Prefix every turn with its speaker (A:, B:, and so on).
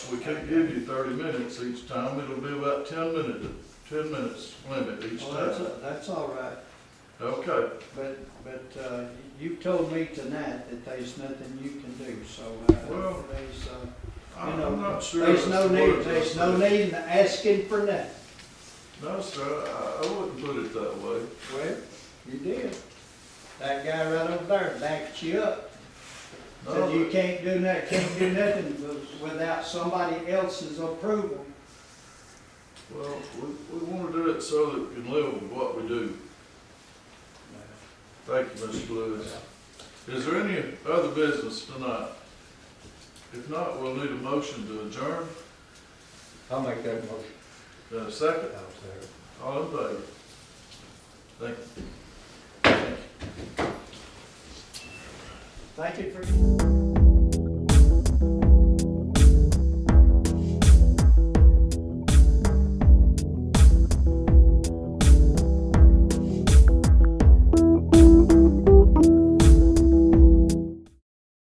A: we can't give you thirty minutes each time, it'll be about ten minutes, ten minutes limit each
B: Well, Oh, that's,
A: time.
B: that's all right,
A: Okay,
B: but, but, uh, you've told me tonight that there's nothing you can do, so, uh,
A: Well,
B: there's, uh,
A: I'm
B: know,
A: I'm not sure.
B: there's
A: that's
B: no
A: the
B: need,
A: word
B: there's
A: that's
B: no
A: there.
B: need in asking for nothing.
A: No, sir, I, I wouldn't put it that way.
B: Well, you did. That guy right over there backed you up,
A: No,
B: said you can't do nothing, can't do nothing wi- without somebody else's approval.
A: Well, we, we wanna do it so that we can live with what we do. Thank you, Mr. Lewis. Is there any other business tonight? If not, we'll need a motion to adjourn.
C: I'll make that motion.
A: Then a second,
C: I'll second.
A: all in favor? Thank you.
B: Thank you for.